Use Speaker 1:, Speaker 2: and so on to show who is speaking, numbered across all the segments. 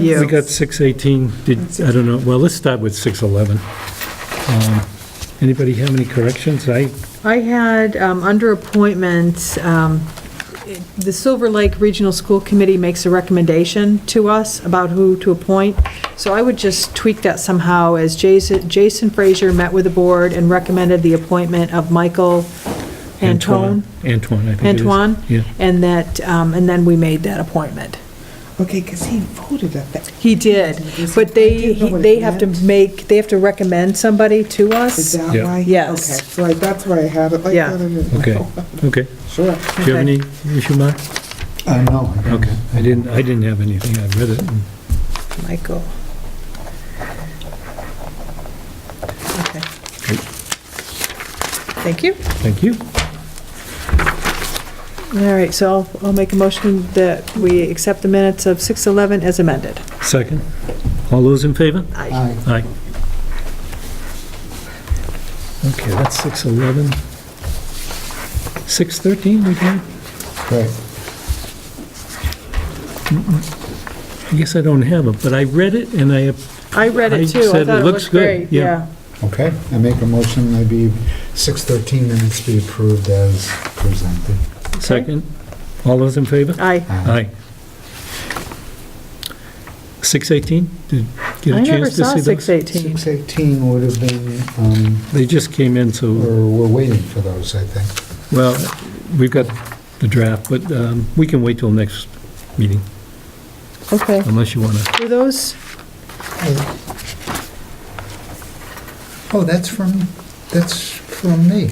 Speaker 1: We
Speaker 2: you.
Speaker 1: got 618, did, I don't know, well, let's start with 611. Um, Anybody have any corrections? I,
Speaker 2: I had, um, under appointment, um, the Silver Lake Regional School Committee makes a recommendation to us about who to appoint, so I would just tweak that somehow, as Jason Jason Frazier met with the board and recommended the appointment of Michael Antone,
Speaker 1: Antoine, I think it is.
Speaker 2: Antoine,
Speaker 1: Yeah.
Speaker 2: and that, um, and then we made that appointment.
Speaker 3: Okay, because he voted at that.
Speaker 2: He did, but they,
Speaker 3: I didn't know what
Speaker 2: they
Speaker 3: it
Speaker 2: have to
Speaker 3: meant.
Speaker 2: make, they have to recommend somebody to
Speaker 3: Is
Speaker 2: us.
Speaker 3: that
Speaker 1: Yeah.
Speaker 3: why?
Speaker 2: Yes.
Speaker 3: Okay, so I- that's why I had it like
Speaker 2: Yeah.
Speaker 3: that. I didn't
Speaker 1: Okay,
Speaker 3: know.
Speaker 1: okay.
Speaker 3: Sure.
Speaker 1: Do you have any issue, Mark?
Speaker 4: Uh, no. I don't.
Speaker 1: Okay, I didn't, I didn't have anything, I read it. and-
Speaker 2: Michael. Okay.
Speaker 1: Great.
Speaker 2: Thank you.
Speaker 1: Thank you.
Speaker 2: All right, so I'll- I'll make a motion that we accept the minutes of 6:11 as amended.
Speaker 1: Second. All those in favor?
Speaker 4: Aye.
Speaker 1: Aye. Okay, that's 611. 613, we did?
Speaker 4: Right.
Speaker 1: I guess I don't have it, but I read it and I,
Speaker 2: I read
Speaker 1: I
Speaker 2: it too. I
Speaker 1: said it
Speaker 2: thought it
Speaker 1: looks
Speaker 2: looked
Speaker 1: good,
Speaker 2: great.
Speaker 1: yeah.
Speaker 2: Yeah.
Speaker 4: Okay, I make a motion that be 613 minutes be approved as presented.
Speaker 1: second. All those in favor?
Speaker 2: Aye.
Speaker 1: Aye. 618? Did you
Speaker 2: I
Speaker 1: get a
Speaker 2: never
Speaker 1: chance to
Speaker 2: saw
Speaker 1: see those?
Speaker 2: 6:18.
Speaker 4: 618 would have been, um,
Speaker 1: They just came in, so,
Speaker 4: or we're waiting for those, I think.
Speaker 1: well, we've got the draft, but um, we can wait till next meeting,
Speaker 2: Okay.
Speaker 1: unless you want to.
Speaker 2: Were those,
Speaker 4: Oh, that's from, that's from me.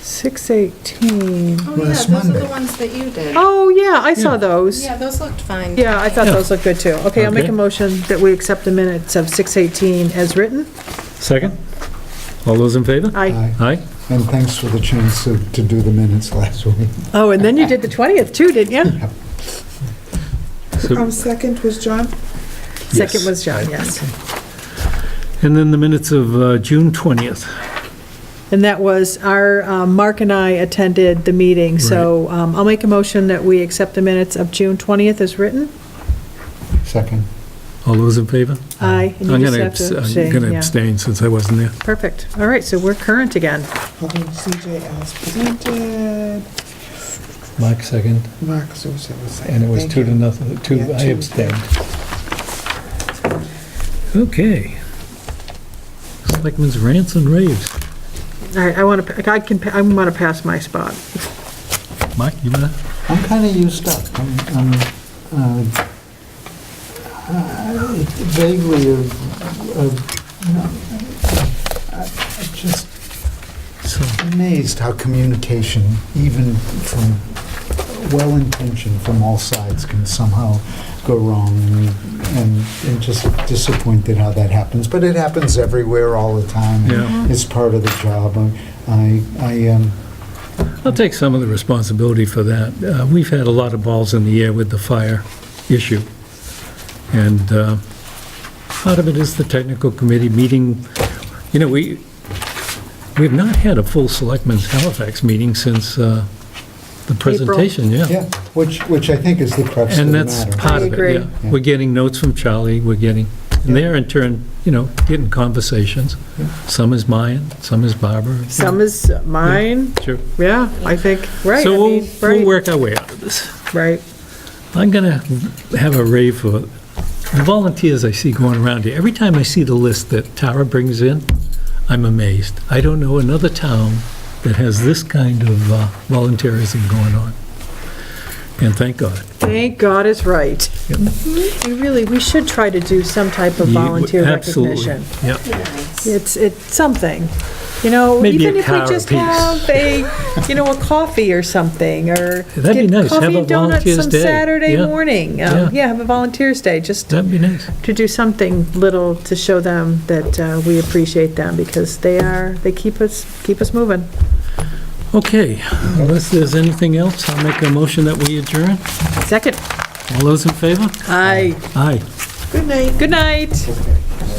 Speaker 2: 6:18?
Speaker 5: Oh, yeah, those
Speaker 4: Last
Speaker 5: are
Speaker 4: Monday.
Speaker 5: the ones that you did.
Speaker 2: Oh, yeah, I
Speaker 1: Yeah.
Speaker 2: saw those.
Speaker 5: Yeah, those looked fine.
Speaker 2: Yeah, I thought
Speaker 1: Yeah.
Speaker 2: those looked good too. Okay, I'll make
Speaker 1: Okay.
Speaker 2: a motion that we accept the minutes of 6:18 as written.
Speaker 1: Second? All those in favor?
Speaker 2: Aye.
Speaker 1: Aye?
Speaker 4: And thanks for the chance to to do the minutes last week.
Speaker 2: Oh, and then you did the 20th too, didn't you?
Speaker 1: So-
Speaker 3: Um, second was John?
Speaker 2: Second was John, yes.
Speaker 1: And then the minutes of uh, June 20th.
Speaker 2: And that was our, um, Mark and I attended the meeting, so um, I'll make a motion that we accept the minutes of June 20th as written.
Speaker 4: Second.
Speaker 1: All those in favor?
Speaker 2: Aye. and you
Speaker 1: Uh, I'm
Speaker 2: just
Speaker 1: gonna
Speaker 2: have to
Speaker 1: abs- I'm
Speaker 2: abstain,
Speaker 1: going to
Speaker 2: yeah.
Speaker 1: abstain since I wasn't there.
Speaker 2: Perfect. All right, so we're current again.
Speaker 3: Although CJ as presented,
Speaker 1: Mark second,
Speaker 3: Mark Zusa was second.
Speaker 1: and it was
Speaker 3: Thank
Speaker 1: two to
Speaker 3: you.
Speaker 1: nothing, two,
Speaker 3: Yeah,
Speaker 1: I
Speaker 3: two.
Speaker 1: abstained. Okay. Selectmen's rants and raves.
Speaker 2: All right, I want to, I can, pa- I want to pass my spot.
Speaker 1: Mark, you want to?
Speaker 4: I'm kind of used up. I'm I'm, uh, I vaguely of, of- no, I- I'm just
Speaker 1: So,
Speaker 4: amazed how communication, even from well-intentioned from all sides, can somehow go wrong and, and just disappointed how that happens. But it happens everywhere all the time. and
Speaker 1: Yeah.
Speaker 4: It's part of the job. I- I, I, um,
Speaker 1: I'll take some of the responsibility for that. Uh, We've had a lot of balls in the air with the fire issue. And uh, part of it is the technical committee meeting. You know, we, we've not had a full Selectmen's Halifax meeting since uh, the presentation, yeah.
Speaker 4: yeah, which, which I think is the crux of the
Speaker 1: And
Speaker 4: matter.
Speaker 1: that's part
Speaker 2: I
Speaker 1: of
Speaker 2: agree.
Speaker 1: it, yeah. We're getting notes from Charlie, we're getting, and they're in turn, you know, getting conversations. Some is mine, some is Barbara.
Speaker 2: Some is mine,
Speaker 1: Sure.
Speaker 2: yeah, I think, right, I
Speaker 1: So
Speaker 2: mean,
Speaker 1: we'll, we'll
Speaker 2: right,
Speaker 1: work our way out of this.
Speaker 2: right.
Speaker 1: I'm going to have a rave for the volunteers I see going around here. Every time I see the list that Tara brings in, I'm amazed. I don't know another town that has this kind of uh, volunteerism going on. And thank God.
Speaker 2: Thank God it's right.
Speaker 1: Yep.
Speaker 2: We really, we should try to do some type of
Speaker 1: You-
Speaker 2: volunteer
Speaker 1: absolutely.
Speaker 2: recognition.
Speaker 1: Yep.
Speaker 2: It's, it's something, you know,
Speaker 1: Maybe a
Speaker 2: even if we
Speaker 1: car
Speaker 2: just
Speaker 1: apiece.
Speaker 2: have a, you know, a coffee or something, or.
Speaker 1: That'd be
Speaker 2: get
Speaker 1: nice. Have
Speaker 2: Coffee
Speaker 1: a
Speaker 2: and donuts
Speaker 1: volunteer's
Speaker 2: some
Speaker 1: day.
Speaker 2: Saturday
Speaker 1: Yeah.
Speaker 2: morning.
Speaker 1: Yeah.
Speaker 2: Um, Yeah, have a volunteer's day, just
Speaker 1: That'd be nice.
Speaker 2: to do something little to show them that uh, we appreciate them, because they are, they keep us, keep us moving.
Speaker 1: Okay, unless there's anything else, I'll make a motion that we adjourn.
Speaker 2: Second,
Speaker 1: All those in favor?
Speaker 2: aye.
Speaker 1: Aye.
Speaker 2: Good night. Good night.